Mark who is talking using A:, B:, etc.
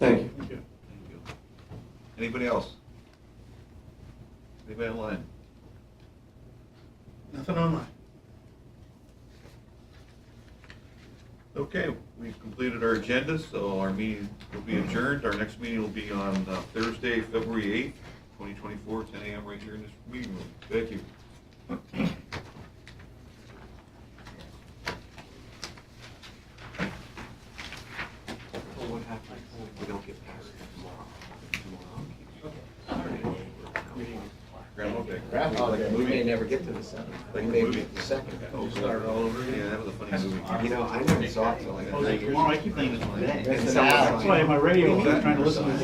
A: Thank you.
B: Thank you. Anybody else? Anybody online? Nothing online. Okay, we've completed our agenda, so our meeting will be adjourned. Our next meeting will be on uh, Thursday, February eighth, twenty twenty-four, ten AM right here in this meeting room. Thank you.
C: We don't get past tomorrow.
B: Groundhog Day.
C: Groundhog Day, we may never get to the seventh, we may be at the second,
B: Oh,
C: we start all over
B: Yeah,
C: again.
B: that was a funny movie.
C: You know, I never saw it till like
B: Oh, is it
C: nine years
B: tomorrow? I
C: ago.
B: keep thinking it's
C: And
B: Monday.
C: someone's
D: That's why
C: like-
D: my radio, was trying to listen to